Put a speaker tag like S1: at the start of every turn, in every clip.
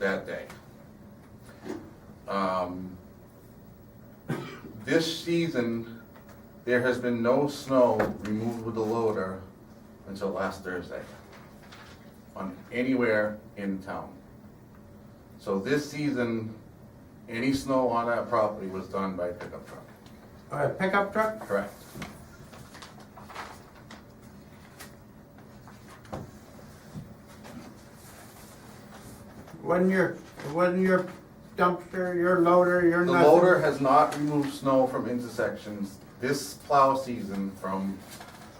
S1: that day. Um, This season, there has been no snow removed with the loader until last Thursday on anywhere in town. So this season, any snow on that property was done by pickup truck.
S2: All right, pickup truck?
S1: Correct.
S2: Wasn't your, wasn't your dumpster, your loader, your
S1: The
S2: nothing?
S1: loader has not removed snow from intersections this plow season from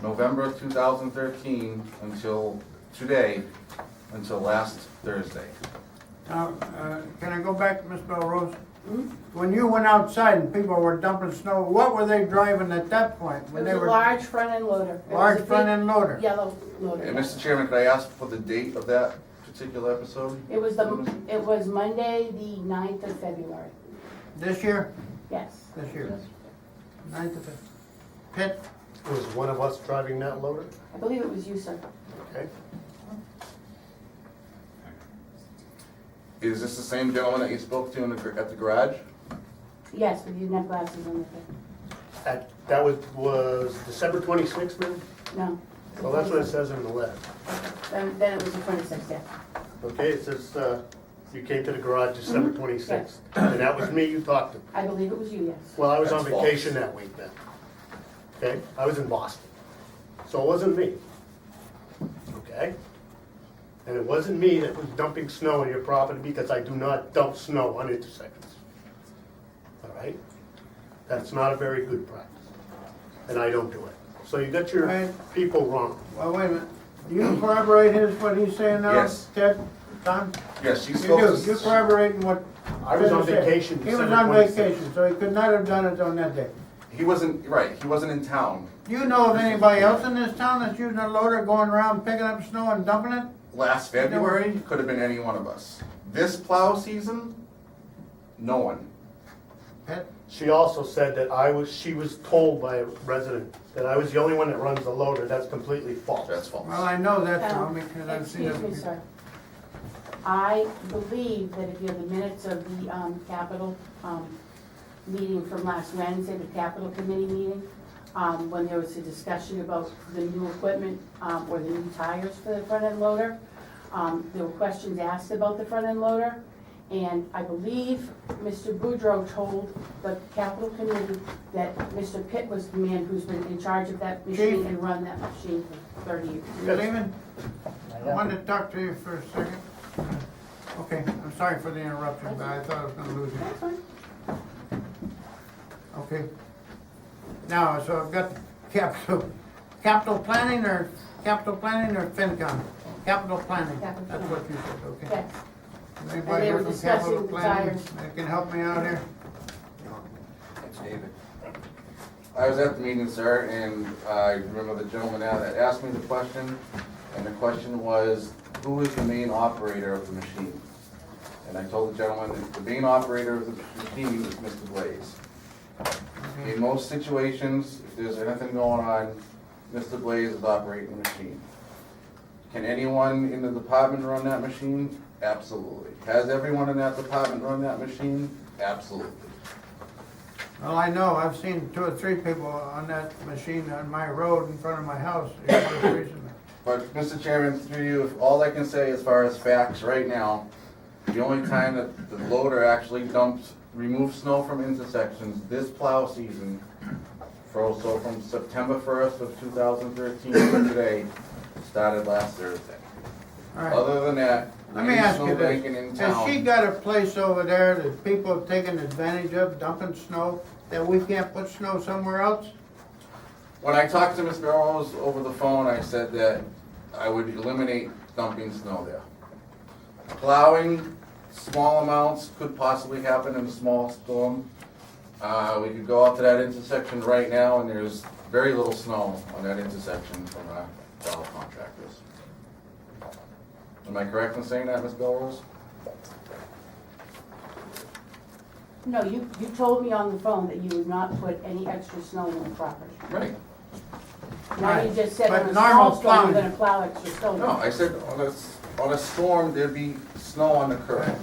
S1: November two thousand thirteen until today, until last Thursday.
S2: Now, uh, can I go back, Ms. Belrose?
S3: Hmm?
S2: When you went outside and people were dumping snow, what were they driving at that point?
S3: It
S2: When
S3: was
S2: they
S3: a
S2: were
S3: large front end loader. It was a
S2: Large
S3: big
S2: front end loader?
S3: Yellow loader.
S1: And
S3: yeah.
S1: Mr. Chairman, could I ask for the date of that particular episode?
S3: It was the, it was Monday, the ninth of February,
S2: This year?
S3: yes.
S2: This year. Ninth of it. Pit,
S4: Was one of us driving that loader?
S3: I believe it was you, sir.
S4: Okay.
S1: Is this the same gentleman that you spoke to in the, gar- at the garage?
S3: Yes, with your net glasses on the thing.
S4: That, that was, was December twenty-sixth, ma'am?
S3: No.
S4: Well, that's what it says in the letter.
S3: Then, then it was the twenty-sixth, yeah.
S4: Okay, it says, uh, you came to the garage December twenty-sixth, and that was me you talked to.
S3: I believe it was you, yes.
S4: Well, I was on
S1: That's false.
S4: vacation that week then. Okay, I was in Boston. So it wasn't me. Okay? And it wasn't me that was dumping snow on your property because I do not dump snow on intersections. All right? That's not a very good practice. And I don't do it. So you got your
S2: Right.
S4: people wrong.
S2: well, wait a minute. Do you corroborate his, what he's saying now?
S1: Yes.
S2: Ted, Tom?
S1: Yes, she
S2: You
S1: spoke
S2: do, you're
S1: to.
S2: corroborating what.
S4: I was on
S2: Ted said.
S4: vacation
S2: He was
S4: December
S2: on
S4: 26th.
S2: vacation, so he could not have done it on that day.
S1: He wasn't, right, he wasn't in town
S2: Do you know of anybody else in this town that's using a loader going around picking up snow and dumping it?
S1: last February, could have been any one of us. This plow season, no one.
S2: Pit,
S4: She also said that I was, she was told by a resident that I was the only one that runs the loader. That's completely false.
S1: That's false.
S2: well, I know that now
S3: Um,
S2: because I've seen it.
S3: Excuse me, sir. I believe that if you have the minutes of the, um, capital, um, meeting from last Wednesday, the capital committee meeting, um, when there was a discussion about the new equipment, um, or the new tires for the front end loader, um, there were questions asked about the front end loader, and I believe Mr. Boudreau told the capital committee that Mr. Pitt was the man who's been in charge of that machine
S2: Chief.
S3: and run that machine for thirty years.
S2: You leaving? I wanted to talk to you for a second. Okay, I'm sorry for the interruption, but I thought I was gonna lose you.
S3: That's fine.
S2: Okay. Now, so I've got capital, capital planning or, capital planning or FinCom? Capital planning,
S3: Capital
S2: that's what you said, okay.
S3: Yes,
S2: Anybody
S3: they were
S2: here from capital
S3: discussing
S2: planning
S3: desires.
S2: that can help me out here?
S1: It's David. I was at the meeting, sir, and I remember the gentleman out that asked me the question, and the question was, who is the main operator of the machine? And I told the gentleman that the main operator of the machine is Mr. Blaze. In most situations, if there's anything going on, Mr. Blaze is operating the machine. Can anyone in the department run that machine? Absolutely. Has everyone in that department run that machine? Absolutely.
S2: Well, I know, I've seen two or three people on that machine on my road in front of my house here just recently.
S1: But, Mr. Chairman, through you, if all I can say as far as facts right now, the only time that the loader actually dumps, removes snow from intersections this plow season, for so from September first of two thousand thirteen to today, started last Thursday.
S2: All right.
S1: Other than that,
S2: Let me
S1: any
S2: ask you
S1: snow
S2: this,
S1: banking in
S2: has she
S1: town,
S2: got a place over there that people have taken advantage of dumping snow, that we can't put snow somewhere else?
S1: when I talked to Ms. Barrows over the phone, I said that I would eliminate dumping snow there. Plowing, small amounts could possibly happen in a small storm. Uh, we could go out to that intersection right now, and there's very little snow on that intersection from our fellow contractors. Am I correct in saying that, Ms. Belrose?
S3: no, you, you told me on the phone that you would not put any extra snow on the property.
S1: Right.
S3: Now you
S2: Right.
S3: just said
S2: But
S3: on a
S2: normal
S3: small storm,
S2: plowing.
S3: you're gonna plow extra snow.
S1: No, I said, oh, that's, on a storm, there'd be snow on the curb.